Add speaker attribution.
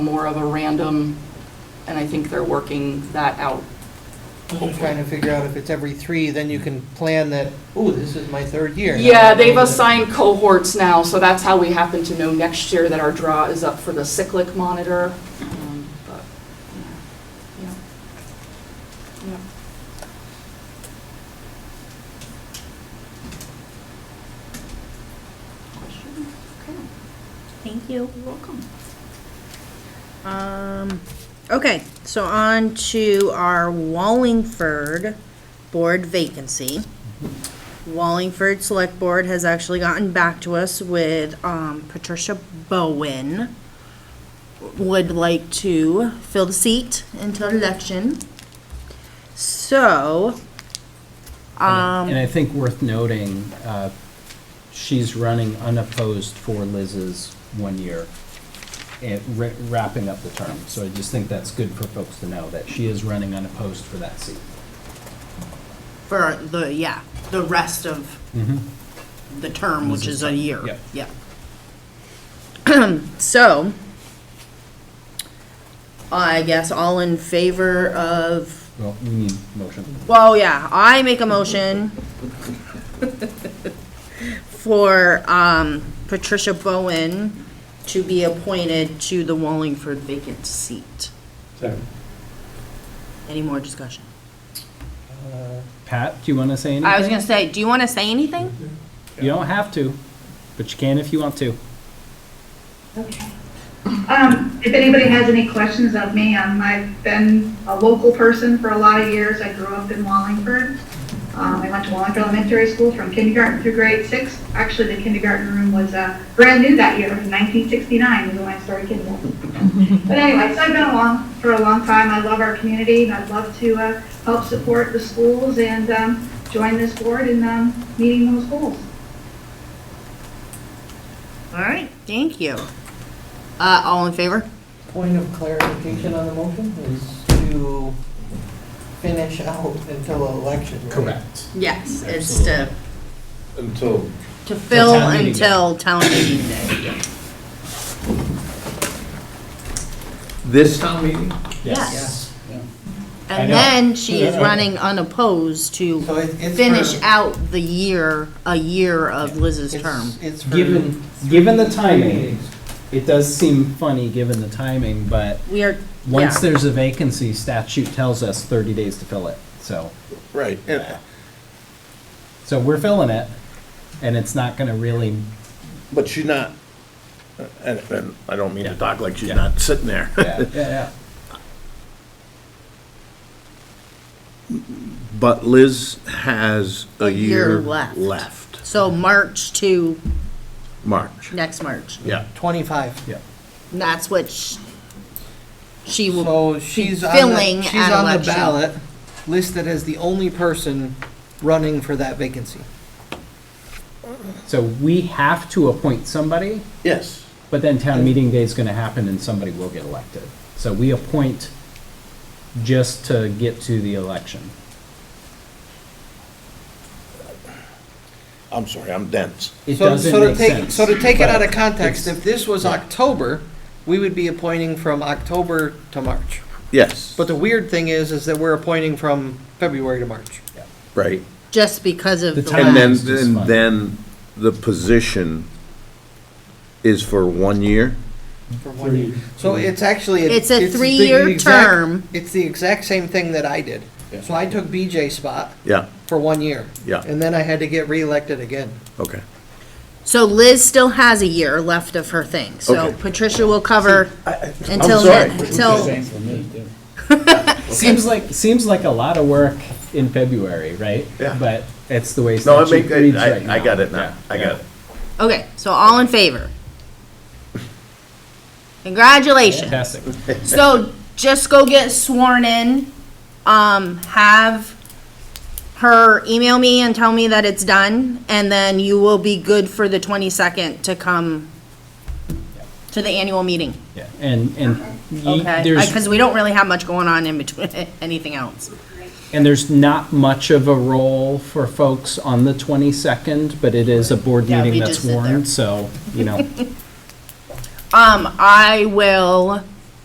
Speaker 1: more of a random, and I think they're working that out.
Speaker 2: I'm trying to figure out if it's every three, then you can plan that, ooh, this is my third year.
Speaker 1: Yeah, they've assigned cohorts now, so that's how we happen to know next year that our draw is up for the cyclic monitor. Um, but, yeah, yeah, yeah. Questions? Okay,
Speaker 3: Thank you.
Speaker 1: you're welcome.
Speaker 3: Um, okay, so on to our Wallingford board vacancy. Wallingford Select Board has actually gotten back to us with, um, Patricia Bowen would like to fill the seat until
Speaker 1: Mm-hmm.
Speaker 3: election. So, um,
Speaker 4: And I think worth noting, uh, she's running unopposed for Liz's one year, eh, wra- wrapping up the term. So I just think that's good for folks to know, that she is running unopposed for that seat.
Speaker 3: for the, yeah, the rest of the term, which is a year.
Speaker 4: Yep.
Speaker 3: Yeah. So, I guess all in favor of,
Speaker 4: Well, we need motion.
Speaker 3: well, yeah, I make a motion for um, Patricia Bowen to be appointed to the Wallingford vacant seat. Any more discussion?
Speaker 4: Pat, do you want to say
Speaker 3: I
Speaker 4: anything?
Speaker 3: was gonna say, do you want to say anything?
Speaker 4: You don't have to, but you can if you want to.
Speaker 5: Okay. Um, If anybody has any questions of me, um, I've been a local person for a lot of years. I grew up in Wallingford. Um, I went to Wallingford Elementary School from kindergarten through grade six. Actually, the kindergarten room was uh, brand new that year, It was 1969 was when I started kindergarten. But anyway, so I've been along for a long time. I love our community, and I'd love to uh, help support the schools and um, join this board in um, meeting those goals.
Speaker 3: All right, thank you. Uh, all in favor?
Speaker 2: Point of clarification on the motion is to finish out until election. right?
Speaker 3: Yes, it's to,
Speaker 6: Until,
Speaker 3: to fill
Speaker 4: town meeting day.
Speaker 3: until town meeting day.
Speaker 6: this town meeting?
Speaker 3: Yes.
Speaker 4: I
Speaker 3: And
Speaker 4: know.
Speaker 3: then she is running unopposed to
Speaker 2: So it- it's.
Speaker 3: finish
Speaker 2: for-
Speaker 3: out the year, a year of Liz's
Speaker 2: it's-
Speaker 3: term.
Speaker 2: It's for.
Speaker 4: Given, given the timing,
Speaker 2: meetings.
Speaker 4: it does seem funny, given the timing, but
Speaker 3: We are,
Speaker 4: once
Speaker 3: yeah,
Speaker 4: there's a vacancy, statute tells us 30 days to fill it, so.
Speaker 6: Right. and-
Speaker 4: So we're filling it, and it's not gonna really,
Speaker 6: But she's not, and, and I don't mean to
Speaker 4: Yeah.
Speaker 6: talk like she's
Speaker 4: Yeah.
Speaker 6: not sitting there.
Speaker 4: yeah, yeah,
Speaker 6: But Liz has a
Speaker 3: year
Speaker 6: year
Speaker 3: left.
Speaker 6: left,
Speaker 3: so March to
Speaker 6: March.
Speaker 3: next March.
Speaker 6: Yeah.
Speaker 2: Twenty-five.
Speaker 4: yeah.
Speaker 3: And That's what sh- she will,
Speaker 2: So she's on
Speaker 3: filling
Speaker 2: the, she's
Speaker 3: at
Speaker 2: on the
Speaker 3: election.
Speaker 2: ballot, listed as the only person running for that vacancy.
Speaker 4: So we have to appoint somebody,
Speaker 6: Yes.
Speaker 4: but then town meeting day is gonna happen and somebody will get elected. So we appoint just to get to the election.
Speaker 6: I'm sorry, I'm dense.
Speaker 4: It
Speaker 2: So-
Speaker 4: doesn't
Speaker 2: so to
Speaker 4: make
Speaker 2: take-
Speaker 4: sense.
Speaker 2: So to take it
Speaker 4: but
Speaker 2: out of context,
Speaker 4: it's-
Speaker 2: if this was October, we would be appointing from October to March.
Speaker 6: Yes.
Speaker 2: But the weird thing is, is that we're appointing from February to March.
Speaker 6: Right.
Speaker 3: just because of
Speaker 4: The
Speaker 3: the
Speaker 4: time-
Speaker 3: last.
Speaker 6: And then,
Speaker 4: It's just
Speaker 6: and
Speaker 4: fun.
Speaker 6: then the position is for one year?
Speaker 2: for one year. So it's actually.
Speaker 3: It's a
Speaker 2: the
Speaker 3: three-year
Speaker 2: exact-
Speaker 3: term.
Speaker 2: It's the exact same thing that I did. So I took BJ's spot
Speaker 6: Yeah,
Speaker 2: for one year.
Speaker 6: Yeah.
Speaker 2: And then I had to get reelected again.
Speaker 6: okay.
Speaker 3: So Liz still has a year left of her thing, so
Speaker 6: Okay.
Speaker 3: Patricia will cover until,
Speaker 6: sorry.
Speaker 3: then- until,
Speaker 4: Seems like, seems like a lot of work in February, right?
Speaker 6: Yeah.
Speaker 4: But it's the way
Speaker 6: No, I
Speaker 4: statute
Speaker 6: make,
Speaker 4: reads right now.
Speaker 6: I, I got it now, I
Speaker 4: Yeah.
Speaker 6: got it.
Speaker 3: okay, so all in favor? Congratulations.
Speaker 4: Fantastic.
Speaker 3: So just go get sworn in. Um, have her email me and tell me that it's done, and then you will be good for the twenty-second to come to the annual meeting,
Speaker 4: Yeah, and, and ye-
Speaker 3: okay?
Speaker 4: there's.
Speaker 3: Because we don't really have much going on in between, anything else.
Speaker 4: And there's not much of a role for folks on the 22nd, but it is a board
Speaker 3: Yeah,
Speaker 4: meeting
Speaker 3: we
Speaker 4: that's
Speaker 3: just sit there.
Speaker 4: warned, so, you know,
Speaker 3: Um, I will